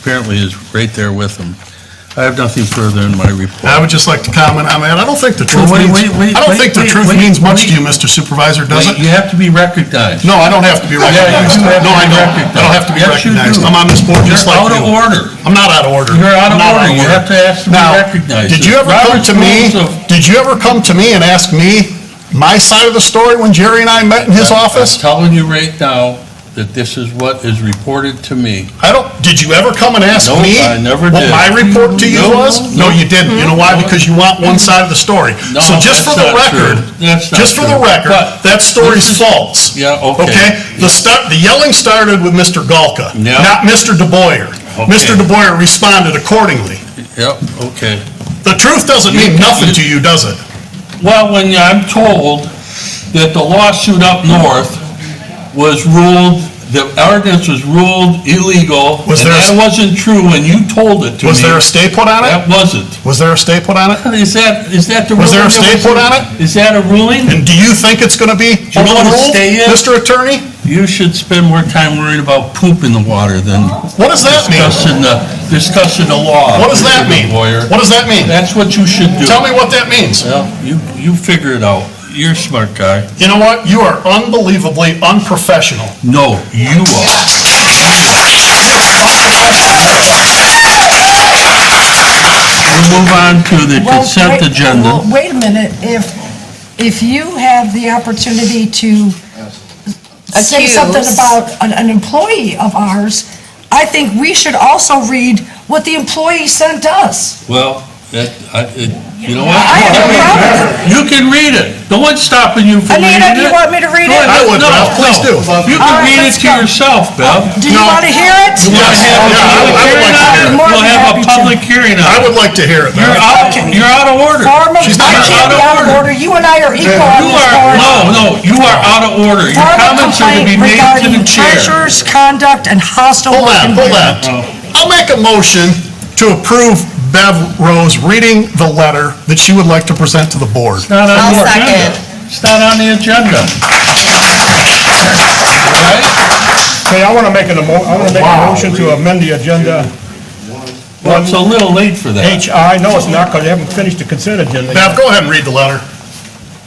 apparently is right there with them. I have nothing further in my I report. would just like to comment, I mean, I don't think the truth wait, means, wait, wait, I don't think the wait, truth wait, means much wait. to you, Mr. Supervisor, does Wait, it? You have to be recognized. No, I don't have to be you recognized. do have to No, I be don't. recognized. I don't have to be Yes, you recognized. do. I'm on this board just You're like out you. of order. I'm not out of order. You're out of I'm not order. You have to ask to be Now, recognized. Did you ever come Robert's to me, rules of- did you ever come to me and ask me my side of the story when Jerry and I met in his I'm- office? I'm telling you right now that this is what is reported to me. I don't, did you ever come and ask Nope, me? I never What did. my report to you No, was? no, No, you didn't. You know why? no. Because you want one side of the story. Mm-hmm. No, So just that's for the not true. record, That's not just for the true. record, But- that story's false. Yeah, okay. The start, the yelling started with Mr. Galka, Yeah. not Mr. DeBoyer. Mr. Okay. DeBoyer responded accordingly. Yep, okay. The truth doesn't mean nothing to you, does it? Well, when I'm told that the lawsuit up north was ruled, the ordinance was ruled illegal, and Was there- that wasn't true when you told it to me. Was there a stay put on That it? wasn't. Was there a stay put on it? Is that, is that the ruling? Was there a that stay put on it? Is that a ruling? And do you think it's going to be you know what a overruled, stay is? Mr. Attorney? You should spend more time worrying about poop in the water than What does that mean? discussing the, discussing the law. What does that mean? Lawyer. What does that mean? That's what you should do. Tell me what that means. Well, you, you figure it out. You're a smart guy. You know what? You are unbelievably unprofessional. No, you are. We'll move on to the Well, consent wait- agenda. well, Wait a minute, if, if you have the opportunity to say Accuse. something about an- an employee of ours, I think we should also read what the employee sent us. Well, that, I, it, you know what? I have no problem. You can read it. No one's stopping you from reading it. Anita, do you want me to read Go it? I ahead. would, No, Ralph, please no. do. You All can right, read it let's to go. Oh, yourself, Bev. Do you No. want to hear it? Have a Yes. Yeah, public hearing on I would- I would like to hear it. it. More than We'll have happy a to. public hearing on I it. would like to hear it. You're Mayor. out, Okay. you're out of order. Form of, She's I not can't be out of order, you and I are equal on You this are, board. no, no, you are out of order. Your Form of comments are to be complaint made to regarding the chair. treasurer's conduct and hostile Hold work on, hold on. environment. I'll make a motion to approve Bev Rose reading the letter that she would like to present to the board. It's not on I'll your agenda. It's not on the agenda. All right? Hey, I want to make an, emo- I want to make a motion to amend the agenda. Well, it's a little late for that. HI, no, it's not, because you haven't finished the consent agenda. yet. Bev, go ahead and read the letter.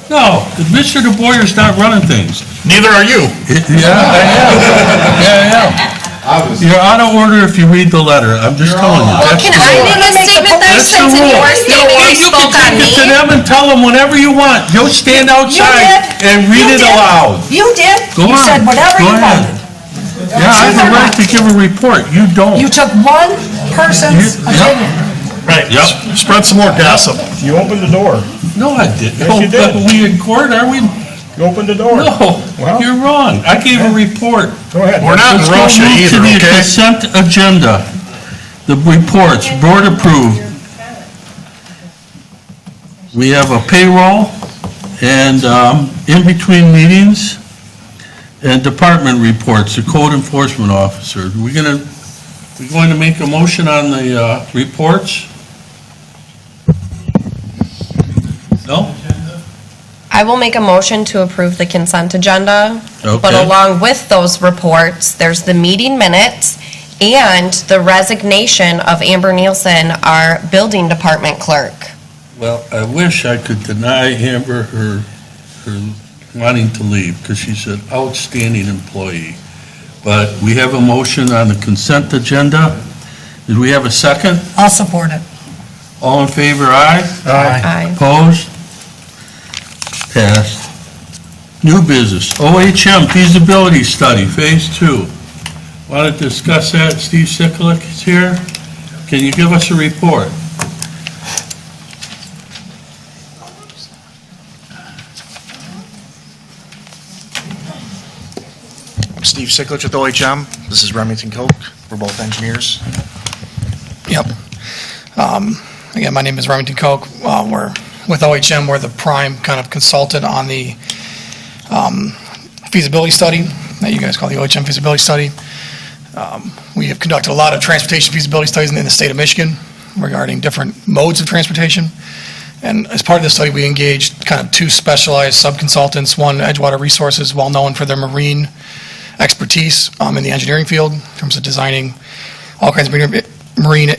No, Mr. DeBoer's not running things. Neither are you. Yeah, I am. Yeah, I am. You're out of order if you read the letter. I'm just telling you. Well, That's can the I rule. make a statement there That's the since in rule. You your know statement what? you You spoke on can take it to me? them and tell them whatever you want. You'll stand You outside did. and You read it did. aloud. You did. Go on. You said whatever Go you ahead. wanted. Yeah, I have the right to give a report. You don't. You took one person's You- yep. opinion. Right. Yep. Spread some more gossip. You opened the door. No, I didn't. Yes, you But did. we in court, are we? You opened the door. No, Well, you're wrong. I gave a report. Go ahead. We're not in Let's go Russia move either, To the okay? consent agenda. The reports, board approved. We have a payroll and um, in-between meetings and department reports, the code enforcement officer. We're gonna, we're going to make a motion on the uh, reports? No? I will make a motion to approve the consent agenda, but Okay. along with those reports, there's the meeting minutes and the resignation of Amber Nielsen, our building department clerk. Well, I wish I could deny Amber her, her wanting to leave, because she's an outstanding employee. But we have a motion on the consent agenda. Did we have a second? I'll support it. All in favor, aye? Aye. Opposed? Passed. New business, OHM feasibility study, phase two. Want to discuss that? Steve Siklik is here. Can you give us a report? Steve Siklich with OHM. This is Remington Koch. We're both engineers. Yep. Um, Again, my name is Remington Koch. Uh, We're with OHM, we're the prime kind of consultant on the um, feasibility study that you guys call the OHM feasibility study. Um, We have conducted a lot of transportation feasibility studies in the state of Michigan regarding different modes of transportation. And as part of this study, we engaged kind of two specialized sub-consultants, one Edgewater Resources, well-known for their marine expertise um, in the engineering field in terms of designing all kinds of marine marine